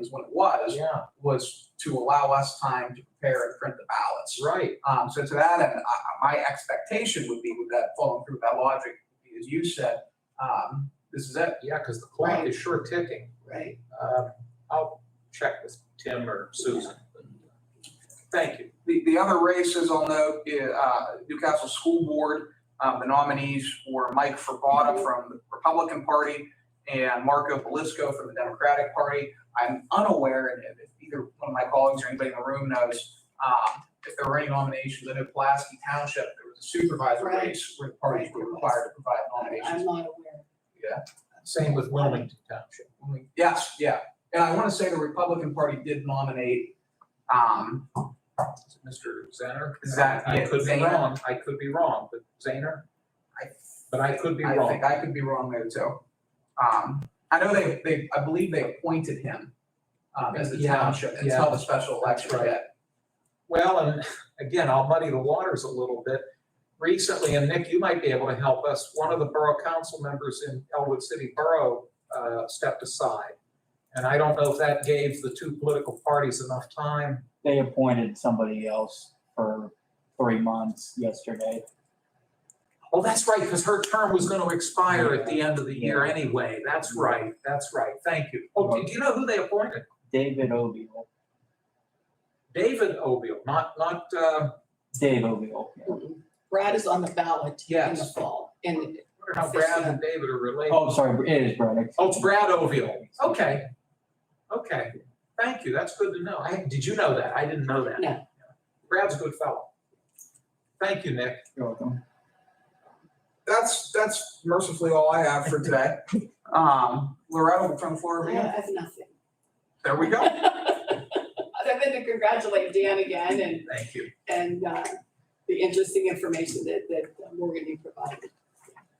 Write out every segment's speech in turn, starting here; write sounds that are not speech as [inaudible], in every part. is when it was, Yeah, was to allow us time to prepare and print the ballots. right. Um, so to that end, I, I- my expectation would be with that, following through that logic, as you said, um, this is it. Yeah, because the clock is sure ticking. Right. Um, I'll check with Tim or Susan. Thank you. The, the other races I'll note, uh, Newcastle School Board, um, the nominees were Mike Frabata from the Republican Party and Marco Belisco from the Democratic Party. I'm unaware, and if either one of my colleagues or anybody in the room knows, um, if there were any nominations. I know Pulaski Township, there was a supervisor Right. race where the parties were required to provide nominations. I'm not aware. Same with Wilmington Township. Yes, yeah. And I want to say the Republican Party did nominate, um, Is it Mr. Zener? Zan- I could be Zaner. wrong, I could be wrong, but Zaner? I- But I could be I wrong. think I could be wrong there too. Um, I know they, they, I believe they appointed him, um, as the Yeah, township yeah. until the special election That's right. hit. Well, and [laughs] again, I'll muddy the waters a little bit. Recently, and Nick, you might be able to help us, one of the borough council members in Elwood City Borough uh, stepped aside. And I don't know if that gave the two political parties enough time. they appointed somebody else for three months yesterday. Oh, that's right, because her term was going to expire at the end of the year anyway. That's right, that's right. Thank you. Oh, do do you know who they appointed? David Oviel, David Obiel, not, not, uh, Dave Oviel. Mm-mm. Brad is on the ballot in the Yes. fall, and I wonder how Brad and David are related. Oh, sorry, it is Braddock. Oh, it's Brad Oviel. Okay. Okay. Thank you. That's good to know. I, did you know that? I didn't know that. No. Brad's a good fellow. Thank you, Nick. You're welcome. That's, that's mercifully all I have for [laughs] today. Um, Loretta, from I Florida, have nothing. [laughs] there we go. Other than to congratulate Dan again and, Thank you. and uh, the interesting information that, that Morgan you provided.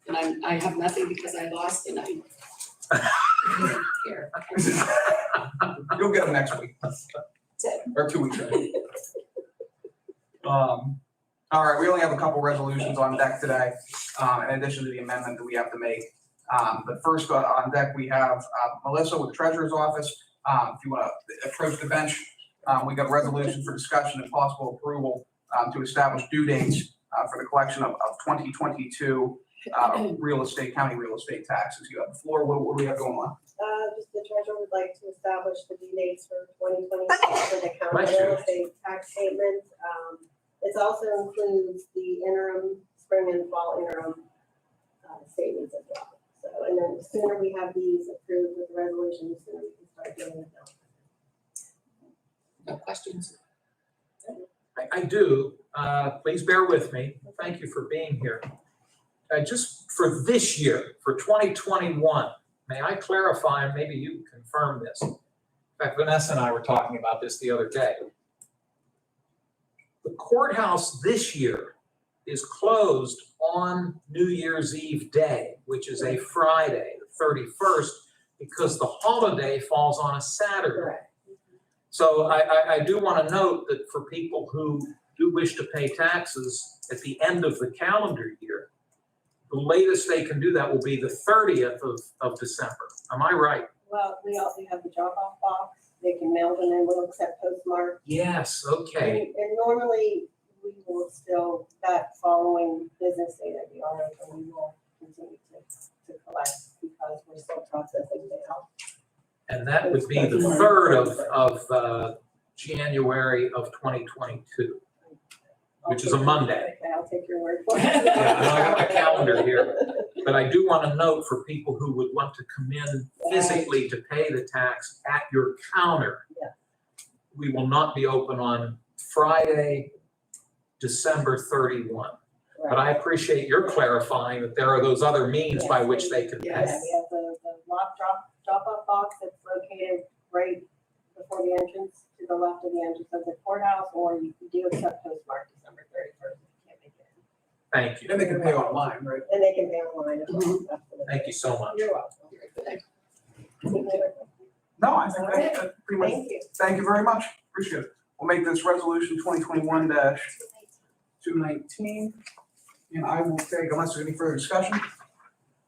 And I'm, I have nothing because I lost and I'm here. [laughs] You'll get them next week, That's it. or two weeks. from now. Um, all right, we only have a couple resolutions on deck today, um, in addition to the amendment that we have to make. Um, but first on- on deck, we have, uh, Melissa with Treasurer's Office. Um, if you want to approach the bench, um, we got a resolution for discussion and possible approval, um, to establish due dates, uh, for the collection of, of twenty twenty-two, uh, real estate, county real estate taxes. You have the floor. What, what do we have going on? Uh, just the treasurer would like to establish the due dates for twenty twenty-six for the county real estate tax statements. Um, this also includes the interim, spring and fall interim, uh, statements as well. So, and then the sooner we have these approved with the resolution, the sooner we can start doing it. No questions? I, I do. Uh, please bear with me. Thank you for being here. Uh, just for this year, for 2021, may I clarify, and maybe you confirm this. In fact, Vanessa and I were talking about this the other day. The courthouse this year is closed on New Year's Eve day, which is a Friday, the 31st, because the holiday falls on a Saturday. Correct. So I, I, I do want to note that for people who do wish to pay taxes at the end of the calendar year, the latest they can do that will be the thirtieth of, of December. Am I right? Well, we also have the drop-off box. They can mail them in. We'll accept postmarks. Yes, okay. And- And normally, we will still, that following business day that we are, and we will continue to, to collect because we're still processing now. And that would be the third of, of, uh, January of twenty twenty-two. Which is a Monday. Okay, I'll take your word for it. Yeah, I don't have [laughs] my calendar here, but I do want to note for people who would want to come in physically to pay the tax at your counter. Yeah. We will not be open on Friday, December thirty-one. But I appreciate your clarifying that there are those other means by which they can Yeah, pay. we Yes. have the, the lock drop, drop-off box that's located right before the entrance, to the left of the entrance of the courthouse, or you can do accept postmark December thirty-first, if you can't make it. Thank you. And they can pay online, right? And they can pay online as well, Mm-hmm. absolutely. Thank you so much. You're welcome. Very good. No, I think that- that's pretty much, Thank you. thank you very much, appreciate it. We'll make this resolution twenty twenty-one two nineteen. And I will take, unless there's any further discussion,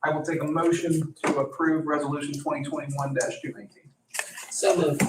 I will take a motion to approve resolution twenty twenty-one two nineteen. [laughs] So moved.